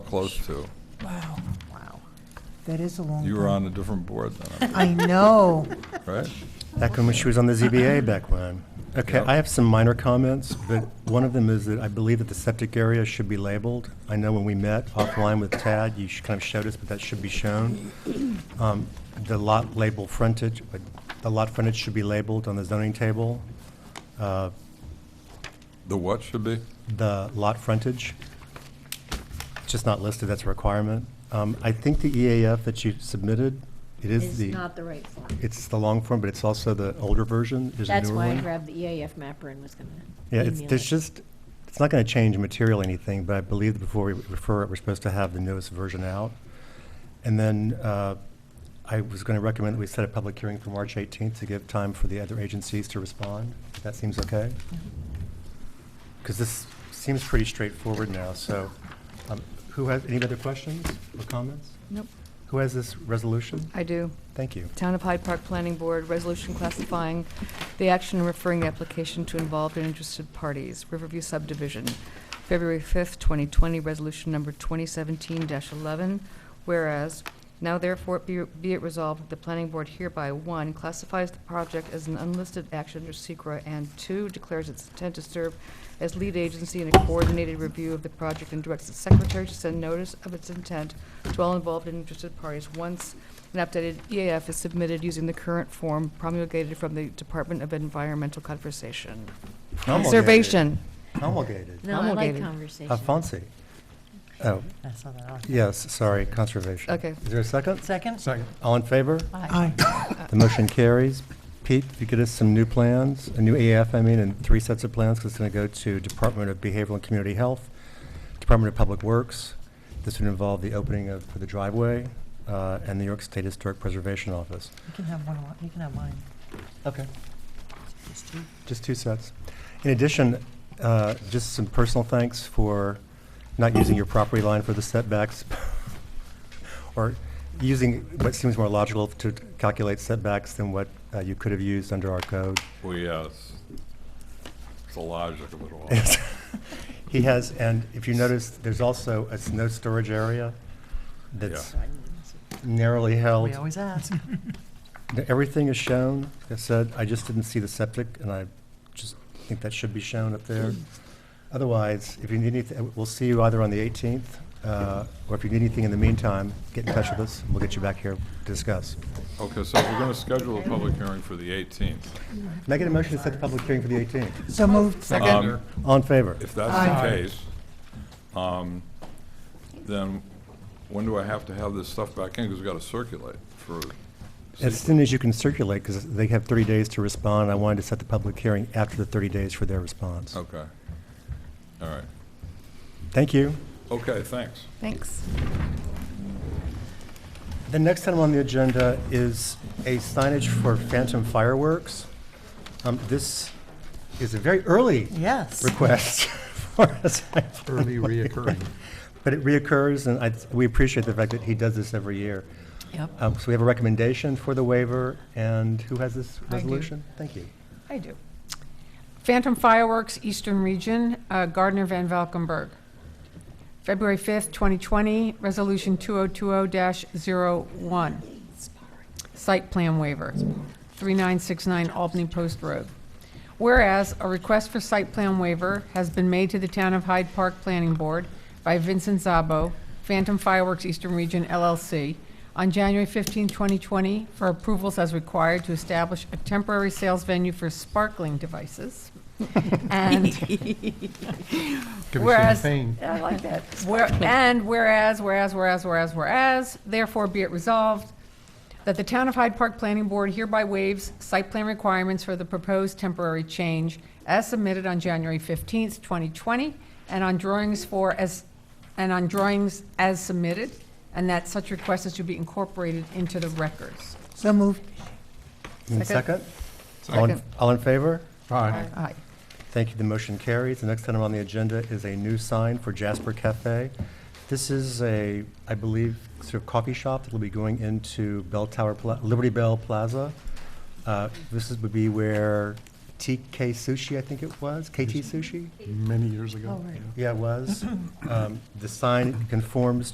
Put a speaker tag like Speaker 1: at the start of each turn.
Speaker 1: close to.
Speaker 2: Wow,
Speaker 3: Wow.
Speaker 2: that is a long.
Speaker 1: You were
Speaker 2: time.
Speaker 1: on a different board then,
Speaker 2: I know.
Speaker 1: right?
Speaker 4: Back when she was on the ZBA back when. Okay,
Speaker 1: Yep.
Speaker 4: I have some minor comments, but one of them is that I believe that the septic area should be labeled. I know when we met offline with Tad, you sh- kind of showed us, but that should be shown. Um, The lot label frontage, uh, the lot frontage should be labeled on the zoning table. Uh,
Speaker 1: The what should be?
Speaker 4: the lot frontage. It's just not listed, that's a requirement. Um, I think the EAF that you submitted, it is
Speaker 3: It's
Speaker 4: the,
Speaker 3: not the right form.
Speaker 4: it's the long form, but it's also the older version, there's a
Speaker 3: That's
Speaker 4: newer
Speaker 3: why I
Speaker 4: one.
Speaker 3: grabbed the EAF mapper and was gonna
Speaker 4: Yeah, it's,
Speaker 3: email
Speaker 4: there's
Speaker 3: it.
Speaker 4: just, it's not gonna change material anything, but I believe before we refer it, we're supposed to have the newest version out. And then, uh, I was gonna recommend that we set a public hearing for March eighteenth to give time for the other agencies to respond. That seems okay?
Speaker 3: Mm-hmm.
Speaker 4: Because this seems pretty straightforward now, so, um, who has, any other questions or comments?
Speaker 5: Nope,
Speaker 4: Who has this resolution?
Speaker 5: I do.
Speaker 4: Thank you.
Speaker 5: Town of Hyde Park Planning Board, resolution classifying the action and referring the application to involved and interested parties, Riverview subdivision, February 5th, 2020, resolution number 2017-11, whereas, now therefore be be it resolved that the planning board hereby, one, classifies the project as an unlisted action under SECR, and two, declares its intent to serve as lead agency in a coordinated review of the project and directs its secretary to send notice of its intent to all involved and interested parties once an updated EAF is submitted using the current form promulgated from the Department of Environmental Conservation. Conservation.
Speaker 4: Promulgated.
Speaker 3: No, I like
Speaker 5: promulgated.
Speaker 3: conversation.
Speaker 4: Alfonsi. Oh,
Speaker 2: I saw that on.
Speaker 4: Yes, sorry, conservation.
Speaker 5: Okay.
Speaker 4: Is there a second?
Speaker 2: Second?
Speaker 4: Second. All in favor?
Speaker 2: Aye.
Speaker 4: The motion carries. Pete, if you could us some new plans, a new AF, I mean, and three sets of plans, 'cause it's going to go to Department of Behavioral and Community Health, Department of Public Works. This would involve the opening of the driveway uh, and the New York State Historic Preservation Office.
Speaker 2: You can have one, of mine- you can have mine.
Speaker 4: Okay.
Speaker 2: Just two.
Speaker 4: Just two sets. In addition, uh, just some personal thanks for not using your property line for the setbacks, or using what seems more logical to calculate setbacks than what uh, you could have used under our code.
Speaker 1: Well, yes. It's the logic of it all.
Speaker 4: Yes. He has, and if you notice, there's also a snow storage area that's narrowly held.
Speaker 2: We always ask.
Speaker 4: Everything is shown. Like I said, I just didn't see the septic, and I just think that should be shown up there. Otherwise, if you need anything, we'll see you either on the 18th, uh, or if you need anything in the meantime, get in touch with us, and we'll get you back here to discuss.
Speaker 1: Okay, so we're gonna schedule a public hearing for the 18th.
Speaker 4: Can I get a motion to set the public hearing for the 18th?
Speaker 2: So moved.
Speaker 1: Um,
Speaker 4: All in favor?
Speaker 1: If that's the case, um, then when do I have to have this stuff back in? Because we've got to circulate for.
Speaker 4: As soon as you can circulate, because they have 30 days to respond, I wanted to set the public hearing after the 30 days for their response.
Speaker 1: Okay. All right.
Speaker 4: Thank you.
Speaker 1: Okay, thanks.
Speaker 5: Thanks.
Speaker 4: The next item on the agenda is a signage for Phantom Fireworks. Um, This is a very early
Speaker 2: Yes.
Speaker 4: request for us. Early reoccurring. But it reoccurs, and I, we appreciate the fact that he does this every year.
Speaker 2: Yep.
Speaker 4: Um, So we have a recommendation for the waiver, and who has this
Speaker 6: do.
Speaker 4: resolution? Thank you.
Speaker 6: I do. Phantom Fireworks, Eastern Region, uh, Gardner Van Valkenburg. February 5th, 2020, Resolution 2020-01. Site plan waiver, 3969 Albany Post Road. Whereas, a request for site plan waiver has been made to the Town of Hyde Park Planning Board by Vincent Zabo, Phantom Fireworks Eastern Region LLC, on January 15, 2020, for approvals as required to establish a temporary sales venue for sparkling devices. And whereas, I like that. Where, and whereas, whereas, whereas, whereas, whereas, therefore be it resolved that the Town of Hyde Park Planning Board hereby waives site plan requirements for the proposed temporary change as submitted on January fifteenth, twenty twenty, and on drawings for as, and on drawings as submitted, and that such request is to be incorporated into the records.
Speaker 2: So moved.
Speaker 4: And
Speaker 5: Second.
Speaker 4: Second? All in-
Speaker 5: Second.
Speaker 4: All in favor?
Speaker 6: Aye.
Speaker 4: Thank you. The motion carries. The next item on the agenda is a new sign for Jasper Cafe. This is a, I believe, sort of coffee shop that will be going into Bell Tower, Pla- Liberty Bell Plaza. Uh, This is- would be where TK Sushi, I think it was, KT Sushi?
Speaker 7: many years ago.
Speaker 2: Oh, right.
Speaker 7: yeah.
Speaker 4: Yeah, it was. Um, The sign conforms